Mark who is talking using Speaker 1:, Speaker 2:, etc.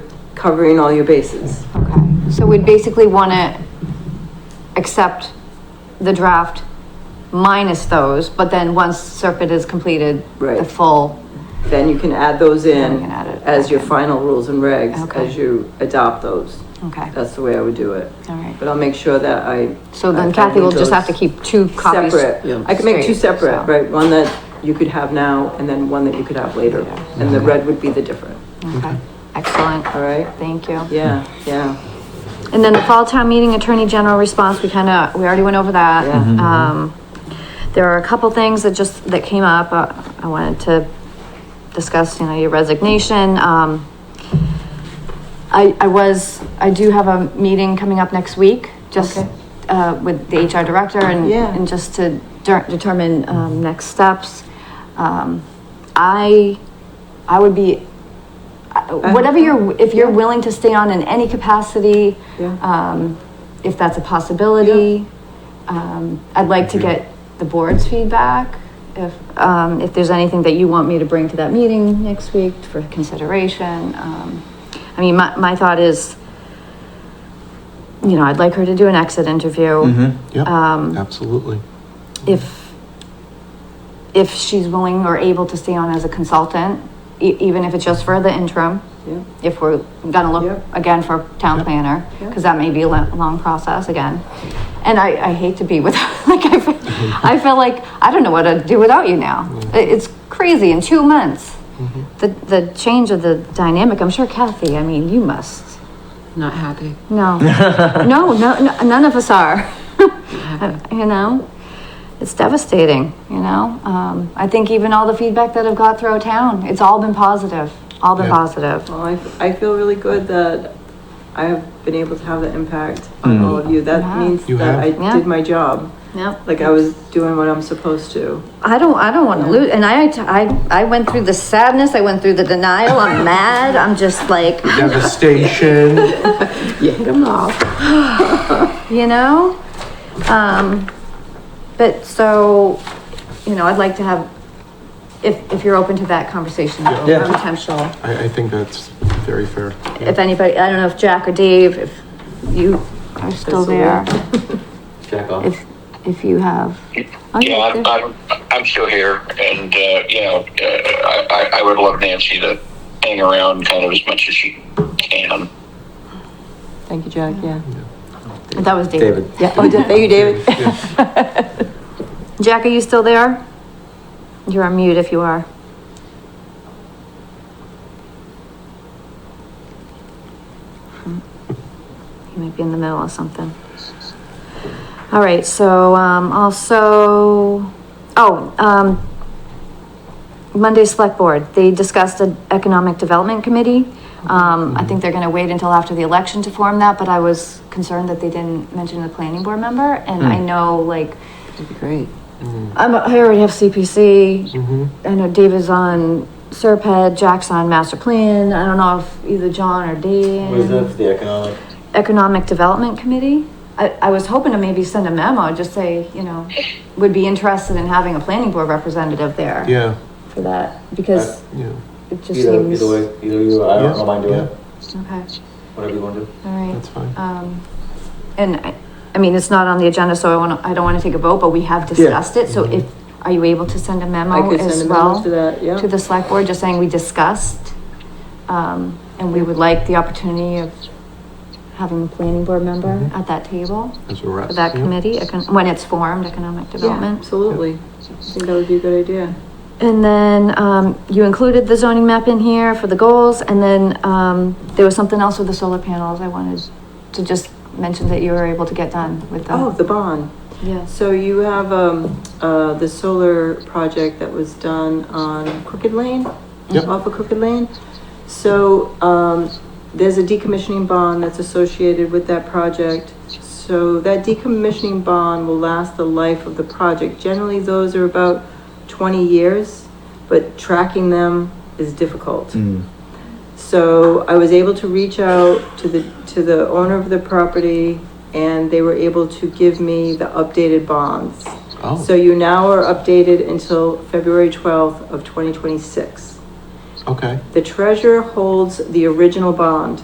Speaker 1: covering all your bases.
Speaker 2: Okay, so we'd basically wanna accept the draft minus those, but then once Serpent is completed, the
Speaker 1: Right.
Speaker 2: full,
Speaker 1: Then you can add those
Speaker 2: Then
Speaker 1: in
Speaker 2: we can add it
Speaker 1: as
Speaker 2: back
Speaker 1: your
Speaker 2: in.
Speaker 1: final rules and regs,
Speaker 2: Okay.
Speaker 1: as you adopt those.
Speaker 2: okay, all
Speaker 1: That's the way I would do it. But
Speaker 2: right.
Speaker 1: I'll make sure that I.
Speaker 2: So
Speaker 1: I- I
Speaker 2: then Kathy will
Speaker 1: need
Speaker 2: just have to
Speaker 1: those
Speaker 2: keep two copies.
Speaker 1: Separate. I could make two
Speaker 2: straight,
Speaker 1: separate,
Speaker 2: so,
Speaker 1: right? One that you could have now and then one that you could have later.
Speaker 2: Later.
Speaker 1: And the red would be the different,
Speaker 2: okay. Excellent,
Speaker 1: all right?
Speaker 2: thank you.
Speaker 1: Yeah, yeah.
Speaker 2: And then the fall town meeting attorney general response, we kind of, we already went over that.
Speaker 1: Yeah. Mhm.
Speaker 2: Um, there are a couple things that just, that came up, uh, I wanted to discuss, you know, your resignation, um. I, I was, I do have a meeting coming up next week, just,
Speaker 1: Okay.
Speaker 2: uh, with the HR director and,
Speaker 1: Yeah.
Speaker 2: and just to der- determine, um, next steps. Um, I, I would be, I-
Speaker 1: Uh-huh.
Speaker 2: whatever you're, if you're
Speaker 1: Yeah.
Speaker 2: willing to stay on in any capacity,
Speaker 1: Yeah.
Speaker 2: um, if that's a possibility. Um, I'd like to get the board's feedback, if, um, if there's anything that you want me to bring to that meeting next week for consideration. Um, I mean, my, my thought is, you know, I'd like her to do an exit interview.
Speaker 3: Mm-hmm, yep,
Speaker 2: Um,
Speaker 3: absolutely.
Speaker 2: If, if she's willing or able to stay on as a consultant, e- even if it's just for the interim
Speaker 1: Yeah.
Speaker 2: if we're gonna look
Speaker 1: Yep.
Speaker 2: again for town
Speaker 3: Yep.
Speaker 2: planner,
Speaker 1: Yep.
Speaker 2: because that may be a lo- long process again. And I, I hate to be without, like, I feel, I feel like, I don't know what to do without you now. I- It's crazy, in two months, the, the change of the dynamic, I'm sure Kathy, I mean, you must.
Speaker 4: Not happy.
Speaker 2: No, no, no, no, none of us are. you know, it's devastating, you know? Um, I think even all the feedback that I've got throughout town, it's all been positive, all been
Speaker 3: Yeah.
Speaker 2: positive.
Speaker 1: Well, I, I feel really good that I have been able to have that impact on
Speaker 3: Mm.
Speaker 1: all of you. That
Speaker 2: Yeah.
Speaker 1: means
Speaker 3: You
Speaker 1: that I
Speaker 3: have.
Speaker 2: Yeah.
Speaker 1: did my job.
Speaker 2: Yep.
Speaker 1: Like I was doing what I'm supposed to.
Speaker 2: I don't, I don't want to lose. And I, I, I went through the sadness. I went through the denial. I'm mad. I'm just like,
Speaker 3: Devastation,
Speaker 1: You hit them off.
Speaker 2: you know? Um, but so, you know, I'd like to have, if, if you're open to that conversation,
Speaker 3: Yeah.
Speaker 2: potential.
Speaker 3: I, I think that's very fair.
Speaker 2: If anybody, I don't know if Jack or Dave, if you are still there,
Speaker 5: Jack off.
Speaker 2: if, if you have. oh,
Speaker 6: Yeah,
Speaker 2: they're-
Speaker 6: I'm, I'm, I'm still here, and uh, you know, uh, I, I- I would love Nancy to hang around kind of as much as she can.
Speaker 1: Thank you, Jack, yeah.
Speaker 2: That was David.
Speaker 5: David.
Speaker 1: Yeah, oh, thank you, David.
Speaker 3: Yeah.
Speaker 2: Jack, are you still there? You're on mute if you are. Hmm. You might be in the middle of something. All right, so, um, also, oh, um, Monday Select Board, they discussed an Economic Development Committee. Um, I think they're gonna wait until after the election to form that, but I was concerned that they didn't mention the planning board member, and I know, like,
Speaker 4: That'd be great.
Speaker 2: I'm, I already have CPC.
Speaker 5: Mm-hmm.
Speaker 2: I know Dave is on Serped, Jack's on Master Plan. I don't know if either John or
Speaker 5: What is that
Speaker 2: Dan.
Speaker 5: for the economic?
Speaker 2: Economic Development Committee. I, I was hoping to maybe send a memo, just say, you know, would be interested in having a planning board representative there.
Speaker 3: Yeah,
Speaker 2: For that, because
Speaker 3: yeah.
Speaker 2: it just
Speaker 5: Uh, Either,
Speaker 2: seems.
Speaker 5: either way, either you, I
Speaker 3: Yeah,
Speaker 5: don't mind doing
Speaker 3: yeah.
Speaker 5: it,
Speaker 2: Okay,
Speaker 5: whatever you want to do.
Speaker 2: all right.
Speaker 3: That's fine.
Speaker 2: Um, and I, I mean, it's not on the agenda, so I wanna, I don't wanna take a vote, but we have discussed it,
Speaker 5: Mm-hmm.
Speaker 2: so if, are you able to send a
Speaker 1: I
Speaker 2: memo
Speaker 1: could
Speaker 2: as
Speaker 1: send a
Speaker 2: well?
Speaker 1: memo to that, yeah.
Speaker 2: to the select board, just saying we discussed, um, and we would like the opportunity of having a planning board member
Speaker 1: Mm-hmm.
Speaker 2: at that table
Speaker 3: As a rep.
Speaker 2: for that
Speaker 3: yeah.
Speaker 2: committee, econ- when it's formed, economic
Speaker 1: Yeah,
Speaker 2: development.
Speaker 1: absolutely. I think that would be a good idea.
Speaker 2: And then, um, you included the zoning map in here for the goals, and then, um, there was something else with the solar panels I wanted to just mention that you were able to get done with that.
Speaker 1: Oh, the bond.
Speaker 2: Yes.
Speaker 1: So you have, um, uh, the solar project that was done on Crooked Lane?
Speaker 3: Yep.
Speaker 1: Off of Crooked Lane? So, um, there's a decommissioning bond that's associated with that project. So that decommissioning bond will last the life of the project. Generally, those are about twenty years, but tracking them is difficult. So I was able to reach out to the, to the owner of the property and they were able to give me the updated bonds.
Speaker 3: Oh.
Speaker 1: So you now are updated until February twelfth of twenty twenty-six.
Speaker 3: Okay.
Speaker 1: The treasurer holds the original bond.